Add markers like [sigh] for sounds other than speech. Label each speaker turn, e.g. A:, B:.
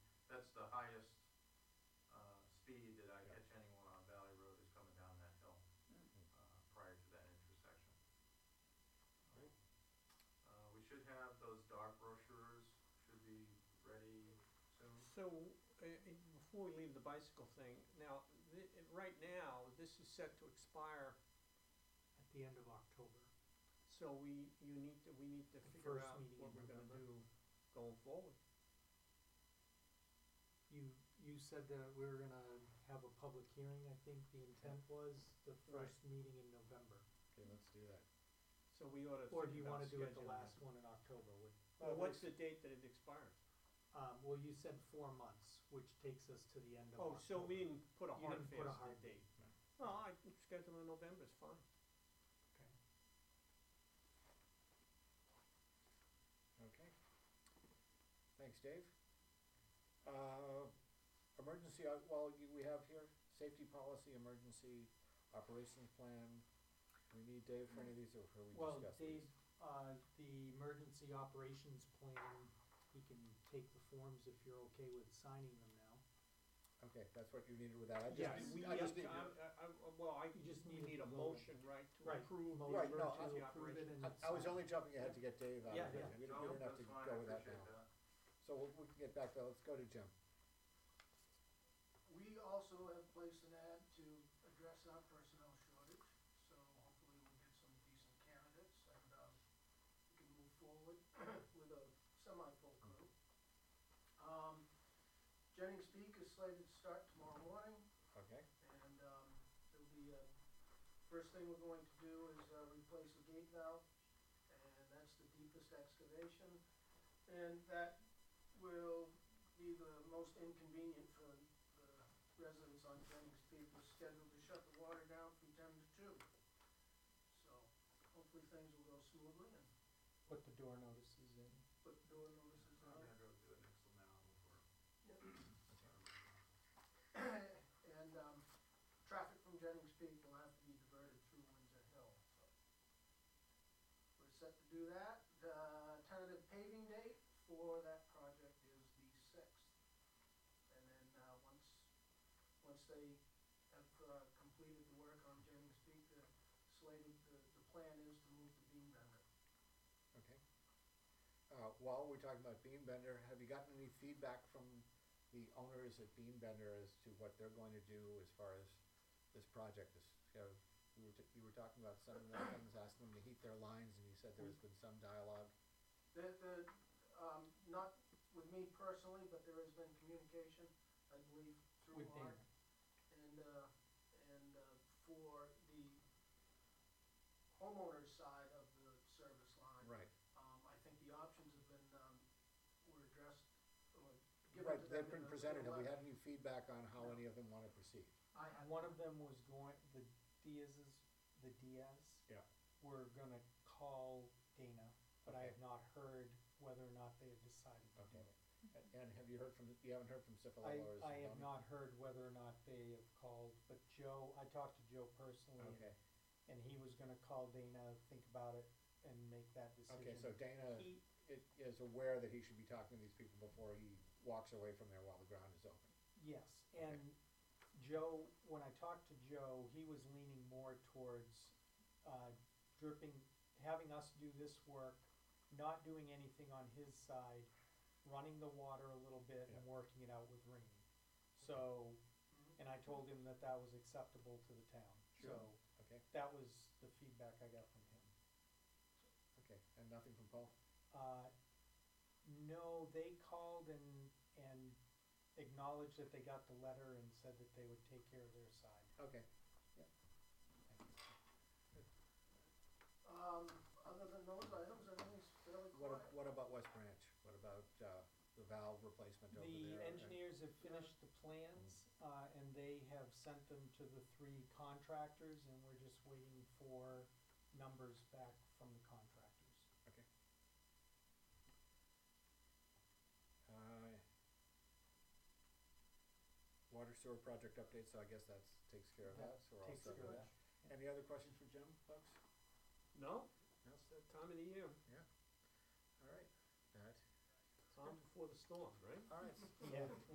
A: uh, speed that I catch anyone on Valley Road who's coming down that hill, uh,
B: Mm.
A: prior to that intersection.
C: Great.
A: Uh, we should have those dark brochures, should be ready soon.
C: So, uh, uh, before we leave the bicycle thing, now, thi- uh, right now, this is set to expire,
D: at the end of October.
C: so we, you need to, we need to
D: The
C: figure
D: first
C: out
D: meeting
C: what
D: in
C: we're gonna
D: November.
C: do going forward.
D: You, you said that we were gonna have a public hearing, I think the intent was the
C: Right.
D: first meeting in November.
B: Okay, let's do that.
C: So we ought to
D: Or do you
C: think about
D: wanna do it the
C: scheduling
D: last
C: that.
D: one in October, would?
C: Well, what's the date that it expires?
D: Um, well, you said four months, which takes us to the end of
C: Oh, so
D: October.
C: we didn't put a
D: You
C: hard
D: didn't put a hard
C: fast date.
B: no.
C: No, I, schedule in November is fine.
D: Okay.
B: Okay. Thanks, Dave. Uh, emergency, uh, well, you, we have here, safety policy, emergency operations plan. We need Dave for any of these, or have we
D: Well,
B: discussed
D: Dave,
B: these?
D: uh, the emergency operations plan, he can take the forms if you're okay with signing them now.
B: Okay, that's what you needed with that, I just,
D: Yes,
C: Do
B: need-
C: we
B: I
C: have
B: just
C: to,
B: need,
C: I, I, I- well, I,
D: You just
C: we
D: need
C: need
D: a
C: a
D: vote.
C: motion, right, to
D: Right.
C: approve the
B: Right, no,
C: emergency
D: To approve it
C: operation.
D: and
B: I, I was
D: sign
B: only
D: it.
B: jumping ahead to get Dave out
D: Yeah,
B: of here,
D: yeah.
B: we don't,
A: No,
B: we don't have to
A: that's fine,
B: go
A: I
B: with that
A: appreciate
B: now. So we'll, we can get back to, let's go to Jim.
E: We also have placed an ad to address our personnel shortage, so hopefully we'll get some decent candidates and, um, we can move forward [clears throat] with a semi-full crew. Um, Jennings Peak is slated to start tomorrow morning
B: Okay.
E: and, um, it'll be, uh, first thing we're going to do is, uh, replace the gate valve and that's the deepest excavation. And that will be the most inconvenient for the residents on Jennings Peak, we're scheduled to shut the water down from ten to two. So hopefully things will go smoothly and
D: Put the door notices in.
E: put door notices
A: I'm
E: out.
A: gonna go do an Excel now before.
E: And, um, traffic from Jennings Peak will have to be diverted through Windsor Hill, so. We're set to do that. The tentative paving date for that project is the sixth. And then, uh, once, once they have, uh, completed the work on Jennings Peak, the slated, the, the plan is to move to beam bender.
B: Okay. Uh, while we're talking about Beam Bender, have you gotten any feedback from the owners at Beam Bender as to what they're going to do as far as this project is, you know, you were, t- you were talking about some of the things, asking them to heat their lines, and you said there's been some dialogue.
E: The, the, um, not with me personally, but there has been communication, I believe, through
D: With
E: Art.
D: Dana.
E: And, uh, and, uh, for the homeowner's side of the service line,
B: Right.
E: um, I think the options have been, um, were addressed, or given
B: Right,
E: to them.
B: they've been
E: in a-
B: presented,
E: in a
B: have we
E: letter.
B: had any feedback on how any of them wanna proceed?
E: I have,
D: One of them was going, the Diaz's, the Diaz.
B: Yeah.
D: Were gonna call Dana, but I
B: Okay.
D: have not heard whether or not they have decided to do
B: Okay.
D: it.
B: And, and have you heard from, you haven't heard from Cifalo
D: I,
B: or
D: I have
B: Zamboni?
D: not heard whether or not they have called, but Joe, I talked to Joe personally, and-
B: Okay,
D: and he was gonna call Dana, think about it, and make that decision.
B: okay, so Dana
D: He,
B: i- is aware that he should be talking to these people before he walks away from there while the ground is open.
D: Yes,
B: Okay.
D: and Joe, when I talked to Joe, he was leaning more towards, uh, dripping, having us do this work, not doing anything on his side, running the water a little bit and working it out with Rainey. So, and I told him that that was acceptable to the town,
B: Sure.
D: so
B: Okay,
D: that was the feedback I got from him.
B: okay, and nothing from Paul?
D: Uh, no, they called and, and acknowledged that they got the letter and said that they would take care of their side.
B: Okay,
E: um, other than those items, everything's fairly
B: what, [laughs]
E: quiet.
B: ab- what about West Branch? What about, uh, the valve replacement over
D: The
B: there?
D: engineers have finished the plans, uh, and they have sent them to the three contractors, and we're just waiting for numbers back from the contractors.
B: Uh, Water sewer project update, so I guess that's, takes care of
D: That
B: that, so we're all
D: takes
B: set
D: care
B: with
D: of
B: that. Any other questions for Jim, folks?
C: No,
B: No?
C: it's that time of the year,
B: All right, that,
C: time before the storm, right?
B: all right,
D: Yeah.